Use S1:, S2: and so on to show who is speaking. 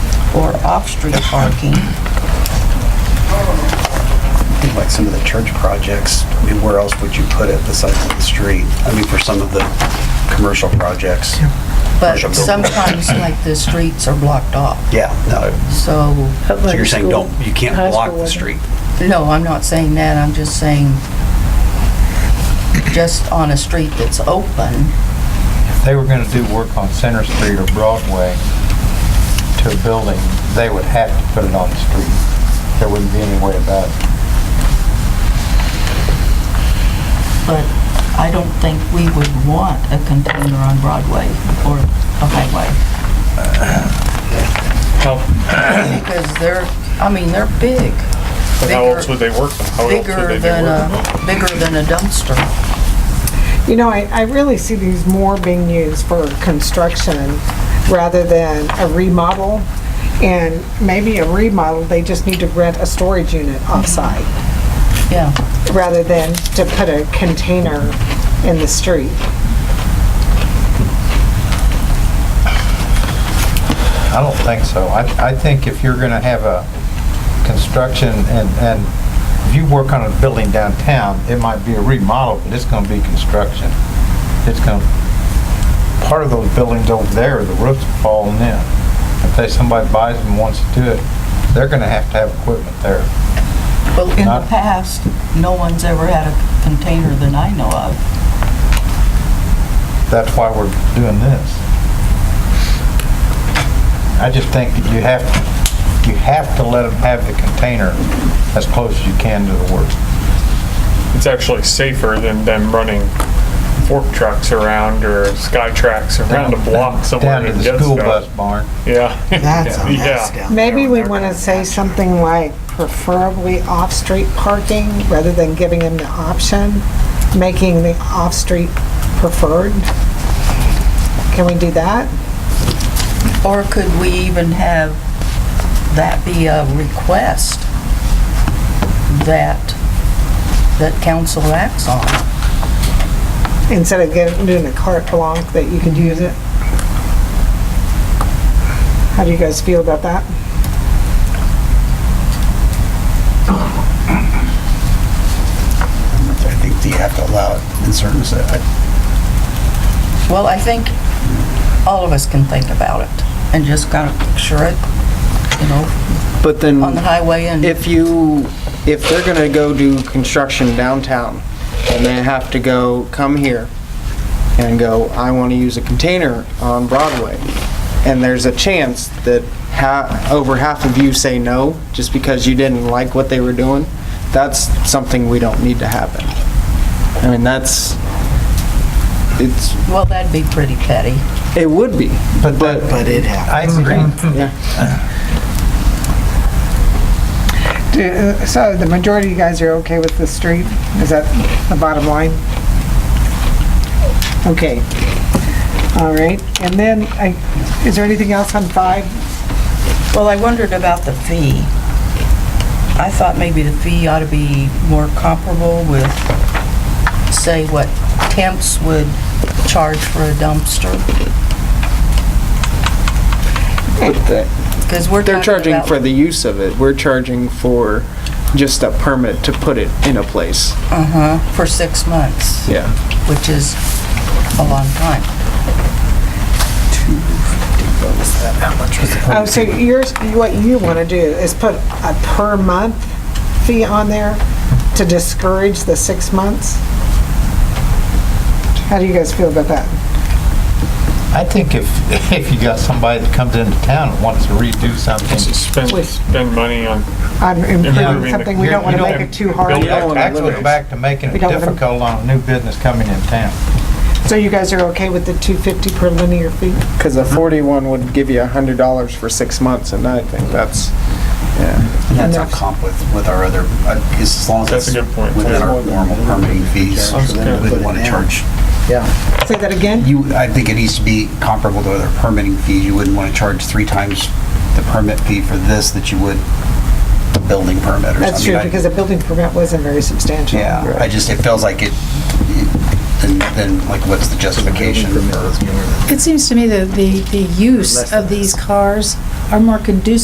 S1: or off-street parking.
S2: think like some of the church projects, I mean, where else would you put it besides the street? I mean, for some of the commercial projects.
S1: But
S2: commercial buildings.
S1: sometimes, like, the streets are blocked off,
S2: Yeah, no,
S1: so,
S2: so you're saying don't, you can't block the street.
S1: no, I'm not saying that, I'm just saying, just on a street that's open,
S3: If they were going to do work on Center Street or Broadway to a building, they would have to put it on the street. There wouldn't be any way about it.
S1: but I don't think we would want a container on Broadway or a highway. Because they're, I mean, they're big.
S4: But how
S1: Bigger-
S4: else would they work them? How else would
S1: Bigger
S4: they be
S1: than
S4: working them?
S2: uh,
S1: a, bigger than a dumpster.
S5: You know, I, I really see these more being used for construction rather than a remodel. And maybe a remodel, they just need to rent a storage unit offsite
S1: Yeah,
S5: rather than to put a container in the street.
S3: I don't think so. I, I think if you're going to have a construction and, and if you work on a building downtown, it might be a remodel, but it's going to be construction. It's going, to part of those buildings over there, the roof's falling in. If they, somebody buys them and wants to do it, they're going to have to have equipment there.
S1: well, in the
S3: Not-
S1: past, no one's ever had a container that I know of.
S3: that's why we're doing this. I just think that you have, you have to let them have the container as close as you can to the work.
S4: It's actually safer than them running fork trucks around or sky tracks around a block somewhere.
S3: Down to
S4: and
S3: the
S4: get
S3: school
S4: stuff.
S3: bus barn.
S4: Yeah.
S2: That's a mess
S4: Yeah.
S2: down
S5: Maybe we want to say something like preferably off-street parking rather than giving them the option, making the off-street preferred. Can we do that?
S1: Or could we even have that be a request that, that council acts on?
S5: Instead of getting, doing a carte blanche that you could use it? How do you guys feel about that?
S2: I think that you have to allow it in certain, se- I-
S1: Well, I think all of us can think about it and just kind of picture it, you know,
S6: But
S1: on the
S6: then,
S1: highway and,
S6: if you, if they're gonna go do construction downtown, and they have to go, come here, and go, I wanna use a container on Broadway, and there's a chance that ha, over half of you say no, just because you didn't like what they were doing, that's something we don't need to happen. I mean, that's, it's,
S1: well, that'd be pretty petty.
S6: it would be,
S3: But that,
S2: but it happens.
S3: I agree.
S6: yeah.
S5: Do- uh, So the majority of you guys are okay with the street? Is that the bottom line? Okay. All right, and then, I- is there anything else on five?
S1: Well, I wondered about the fee. I thought maybe the fee ought to be more comparable with, say, what temps would charge for a dumpster.
S6: But that-
S1: Because we're
S6: They're
S1: talking
S6: charging
S1: about.
S6: for the use of it. We're charging for just a permit to put it in a place.
S1: Uh-huh, for six months,
S6: Yeah.
S1: which is a long time.
S5: Oh, so yours, what you want to do is put a per month fee on there to discourage the six months? How do you guys feel about that?
S3: I think if, if you got somebody that comes into town and wants to redo something.
S4: Spend,
S5: Wait.
S4: spend money on,
S5: On
S4: Improving the-
S5: improving something, we don't want
S3: you
S5: to make it too
S4: Build
S5: hard.
S4: it up.
S3: You're Actually, go back to making it
S5: We don't wanna-
S3: difficult on a new business coming in town.
S5: So you guys are okay with the 250 per linear feet?
S6: Because a 41 would give you a $100 for six months, and I think that's, yeah.
S2: And That's our comp with, with our other, I guess as long as
S4: That's
S2: it's
S4: a good point,
S2: within
S4: too.
S2: our normal permitting fees,
S4: That's good.
S2: we wouldn't want to charge.
S5: Say that again?
S2: You, I think it needs to be comparable to other permitting fees. You wouldn't want to charge three times the permit fee for this that you would the building permit or something.
S5: That's true,
S2: I-
S5: because the building permit wasn't very substantial.
S2: Yeah, I just, it feels like it, then, then like what's the justification for
S7: It seems to me that the, the use of these cars are more conducive